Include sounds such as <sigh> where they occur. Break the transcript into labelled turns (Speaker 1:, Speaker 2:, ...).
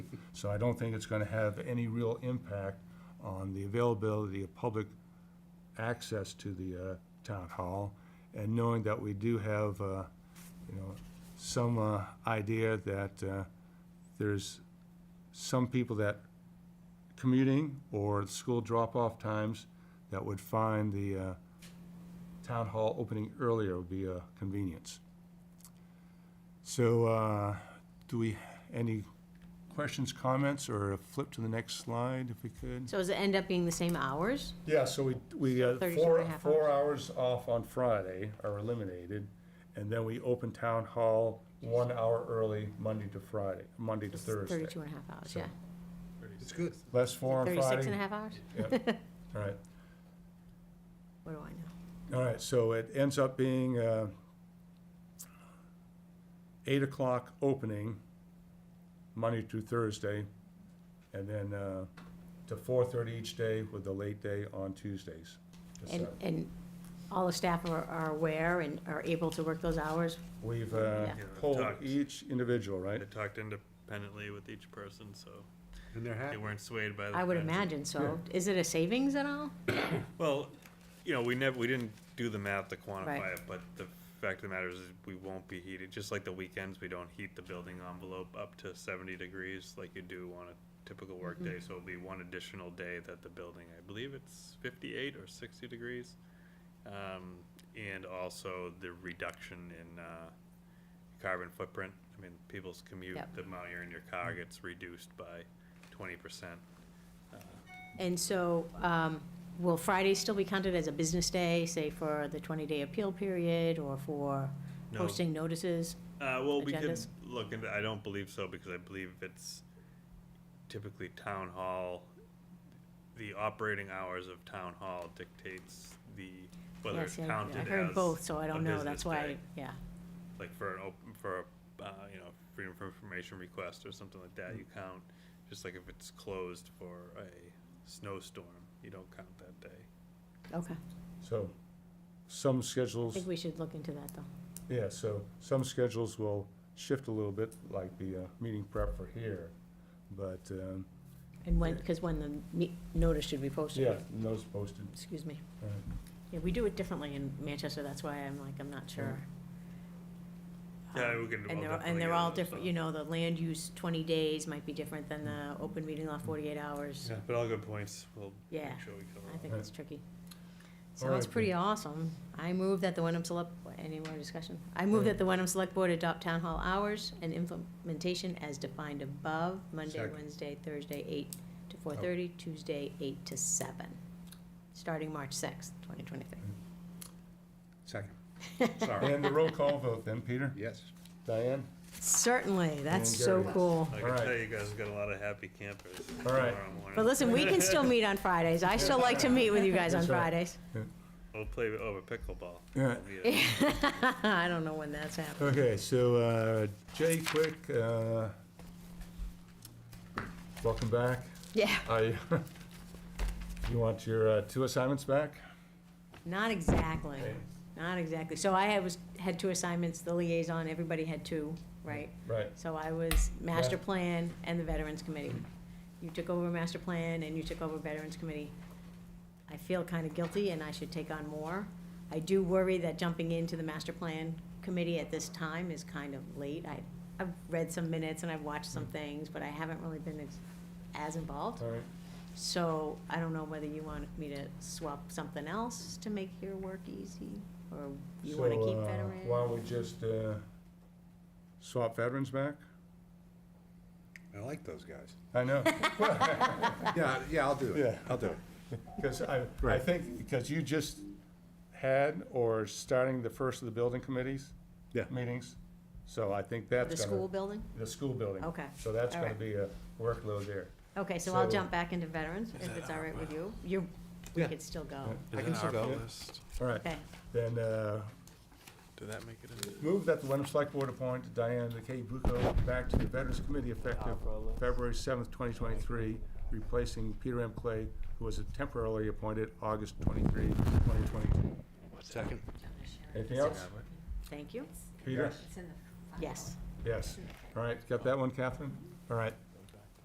Speaker 1: So I don't think it's gonna have any real impact on the availability of public access to the uh, town hall. And knowing that we do have, uh, you know, some uh, idea that uh, there's some people that commuting or school drop-off times that would find the uh, town hall opening earlier would be a convenience. So, uh, do we, any questions, comments, or flip to the next slide if we could?
Speaker 2: So does it end up being the same hours?
Speaker 1: Yeah, so we, we, uh,
Speaker 2: 32
Speaker 1: four,
Speaker 2: and a half
Speaker 1: four hours off on Friday are eliminated, and then we open town hall one hour early, Monday to Friday, Monday to
Speaker 2: It's
Speaker 1: Thursday.
Speaker 2: Thirty-two and a half hours,
Speaker 1: So,
Speaker 2: yeah.
Speaker 3: It's good.
Speaker 1: Less four on
Speaker 2: Thirty-six and
Speaker 1: Friday.
Speaker 2: a half hours?
Speaker 1: Yep. All right,
Speaker 2: What do I know?
Speaker 1: all right, so it ends up being, uh, eight o'clock opening, Monday to Thursday, and then, uh, to four-thirty each day with the late day on Tuesdays.
Speaker 2: And,
Speaker 1: So
Speaker 2: and all the staff are, are aware and are able to work those hours?
Speaker 1: We've, uh,
Speaker 2: Yeah.
Speaker 1: polled
Speaker 4: Talked.
Speaker 1: each individual, right?
Speaker 4: I talked independently with each person, so
Speaker 3: And they're
Speaker 4: they
Speaker 3: happy.
Speaker 4: weren't swayed by the.
Speaker 2: I would
Speaker 4: friends.
Speaker 2: imagine so. Is it a savings at all?
Speaker 4: Well, you know, we never, we didn't do the math to
Speaker 2: Right.
Speaker 4: quantify it, but the fact of the matter is, is we won't be heated, just like the weekends, we don't heat the building envelope up to seventy degrees like you do on a typical
Speaker 2: Mm-hmm.
Speaker 4: workday, so it'll be one additional day that the building, I believe it's fifty-eight or sixty degrees. Um, and also the reduction in, uh, carbon footprint, I mean, people's commute,
Speaker 2: Yep. Mm-hmm.
Speaker 4: the amount you're in your car gets reduced by twenty percent.
Speaker 2: And so, um, will Friday still be counted as a business day, say for the twenty-day appeal period or for
Speaker 4: No.
Speaker 2: posting notices?
Speaker 4: Uh, well, we could
Speaker 2: agendas?
Speaker 4: look into, I don't believe so, because I believe it's typically town hall, the operating hours of town hall dictates the, whether
Speaker 2: Yeah,
Speaker 4: it's
Speaker 2: see, I-
Speaker 4: counted as.
Speaker 2: I heard both, so I
Speaker 4: a
Speaker 2: don't know.
Speaker 4: business
Speaker 2: That's why,
Speaker 4: day.
Speaker 2: yeah.
Speaker 4: Like for an open, for a, uh, you know, freedom of information request or something like that, you
Speaker 2: Mm.
Speaker 4: count, just like if it's closed for a snowstorm, you don't count that day.
Speaker 2: Okay.
Speaker 1: So, some
Speaker 2: I
Speaker 1: schedules,
Speaker 2: think we should look into that though.
Speaker 1: yeah, so some schedules will shift a little bit, like the uh, meeting prep for here. But, um,
Speaker 2: And when, because when the me- notice should be posted.
Speaker 1: yeah, and those posted. Uh,
Speaker 2: Excuse me.
Speaker 1: all right.
Speaker 2: Yeah, we do it differently in Manchester, that's why I'm like, I'm not sure.
Speaker 4: Yeah,
Speaker 2: Um,
Speaker 4: we
Speaker 2: And
Speaker 4: can- I'll
Speaker 2: they're,
Speaker 4: definitely
Speaker 2: and they're
Speaker 4: get
Speaker 2: all
Speaker 4: those
Speaker 2: different,
Speaker 4: done.
Speaker 2: you know, the land use twenty days might be different than
Speaker 1: Mm.
Speaker 2: the open meeting law forty-eight hours.
Speaker 4: Yeah, but all good points, we'll make
Speaker 2: Yeah,
Speaker 4: sure we cover.
Speaker 2: I
Speaker 4: all
Speaker 2: think
Speaker 1: Right.
Speaker 2: it's tricky.
Speaker 1: All
Speaker 2: Sounds
Speaker 1: right,
Speaker 2: pretty awesome. I move that the Wenham Select, any more discussion? I move that the Wenham Select Board adopt town hall hours and implementation as defined above, Monday,
Speaker 1: Second. Oh.
Speaker 2: Wednesday, Thursday, eight to four thirty, Tuesday, eight to seven, starting March sixth, twenty twenty-three.
Speaker 3: Second. Sorry.
Speaker 1: And the roll call vote then, Peter?
Speaker 3: Yes.
Speaker 1: Diane?
Speaker 2: Certainly, that's
Speaker 1: And
Speaker 2: so
Speaker 1: Gary.
Speaker 2: cool.
Speaker 4: I
Speaker 1: All
Speaker 4: can
Speaker 1: right.
Speaker 4: tell you guys got a lot of happy campers
Speaker 1: All right.
Speaker 4: tomorrow morning.
Speaker 2: But listen, we can still meet on Fridays. I still like to meet with you guys on
Speaker 1: That's right.
Speaker 2: Fridays. <laughs>
Speaker 4: We'll play over pickleball.
Speaker 1: Yeah.
Speaker 4: It'll be a-
Speaker 2: I don't know when that's happening.
Speaker 1: Okay, so, uh, Jay Quick, uh, welcome back.
Speaker 2: Yeah,
Speaker 1: I, <laughs> you want your uh, two assignments back?
Speaker 2: not exactly.
Speaker 1: Okay.
Speaker 2: Not exactly. So I had was, had two assignments, the liaison, everybody had two, right?
Speaker 1: Right.
Speaker 2: So I was master
Speaker 1: Yeah.
Speaker 2: plan and the veterans committee. You took over master plan and you took over veterans committee. I feel kind of guilty and I should take on more. I do worry that jumping into the master plan committee at this time is kind of late. I, I've read some minutes and I've watched some
Speaker 1: Mm.
Speaker 2: things, but I haven't really been as, as involved.
Speaker 1: All right.
Speaker 2: So I don't know whether you want me to swap something else to make your work easy, or you wanna
Speaker 1: So,
Speaker 2: keep
Speaker 1: uh,
Speaker 2: veteran?
Speaker 1: Why don't we just, uh, swap veterans back?
Speaker 3: I like those guys.
Speaker 1: I know.
Speaker 3: Yeah, yeah, I'll do it.
Speaker 1: Yeah.
Speaker 3: I'll do it.
Speaker 1: Because I, I
Speaker 3: Right.
Speaker 1: think, because you just had or starting the first of the building committees?
Speaker 3: Yeah.
Speaker 1: Meetings, so I think that's
Speaker 2: The
Speaker 1: gonna.
Speaker 2: school building?
Speaker 1: The school building.
Speaker 2: Okay.
Speaker 1: So that's
Speaker 2: All
Speaker 1: gonna
Speaker 2: right.
Speaker 1: be a workload there.
Speaker 2: Okay, so I'll
Speaker 1: So-
Speaker 2: jump back into veterans, if it's all right with you. You, we
Speaker 3: Yeah.
Speaker 2: could still go.
Speaker 3: I can still go.
Speaker 1: All right,
Speaker 2: Okay,
Speaker 1: then, uh,
Speaker 4: Did that make it in?
Speaker 1: move that the Wenham Select Board appoint Diane McKay Bucco back to the Veterans Committee effective February seventh, twenty twenty-three, replacing Peter M. Clay, who was temporarily appointed August 23, 2022.
Speaker 3: Second.
Speaker 1: Anything else?
Speaker 2: thank you.
Speaker 1: Peter?
Speaker 2: Yes.
Speaker 1: Yes. All right, got that one, Catherine? All right,